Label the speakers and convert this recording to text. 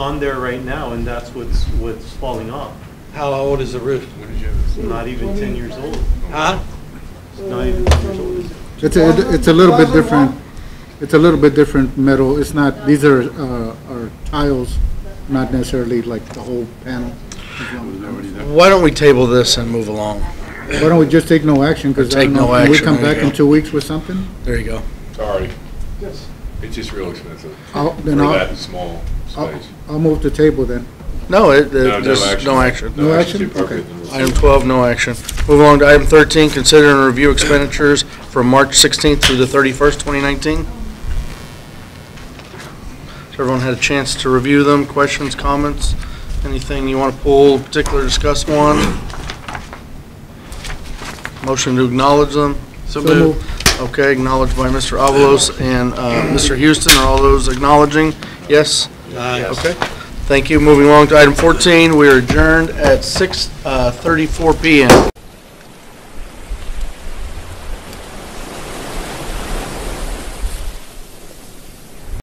Speaker 1: on there right now, and that's what's, what's falling off.
Speaker 2: How old is the roof?
Speaker 3: What did you have?
Speaker 1: It's not even 10 years old.
Speaker 2: Huh?
Speaker 1: It's not even 10 years old.
Speaker 4: It's, a- it's a little bit different, it's a little bit different metal, it's not, these are, uh, are tiles, not necessarily like the whole panel.
Speaker 2: Why don't we table this and move along?
Speaker 4: Why don't we just take no action, because I
Speaker 2: Take
Speaker 4: don't know,
Speaker 2: no
Speaker 4: can we
Speaker 2: action,
Speaker 4: come
Speaker 2: there you
Speaker 4: back in
Speaker 2: go.
Speaker 4: two weeks with something?
Speaker 2: There you go.
Speaker 3: Sorry. Yes. It's just real expensive
Speaker 4: I'll,
Speaker 3: for
Speaker 4: then I'll,
Speaker 3: that small
Speaker 4: I'll,
Speaker 3: space.
Speaker 4: I'll move to table then.
Speaker 2: No, it, it- there's no action.
Speaker 4: No
Speaker 3: too
Speaker 4: action? Okay.
Speaker 3: appropriate.
Speaker 2: Item 12, no action. Move on to item 13, consider and review expenditures from March 16th through the 31st, 2019. Has everyone had a chance to review them? Questions, comments? Anything you want to pull, particular discuss one? Motion to acknowledge them?
Speaker 4: So moved.
Speaker 2: Okay, acknowledged by Mr. Avalos and uh, Mr. Houston. Are all those acknowledging? Yes? Okay. uh, Thank you. Moving along to item 14, we are adjourned at 6:34 PM.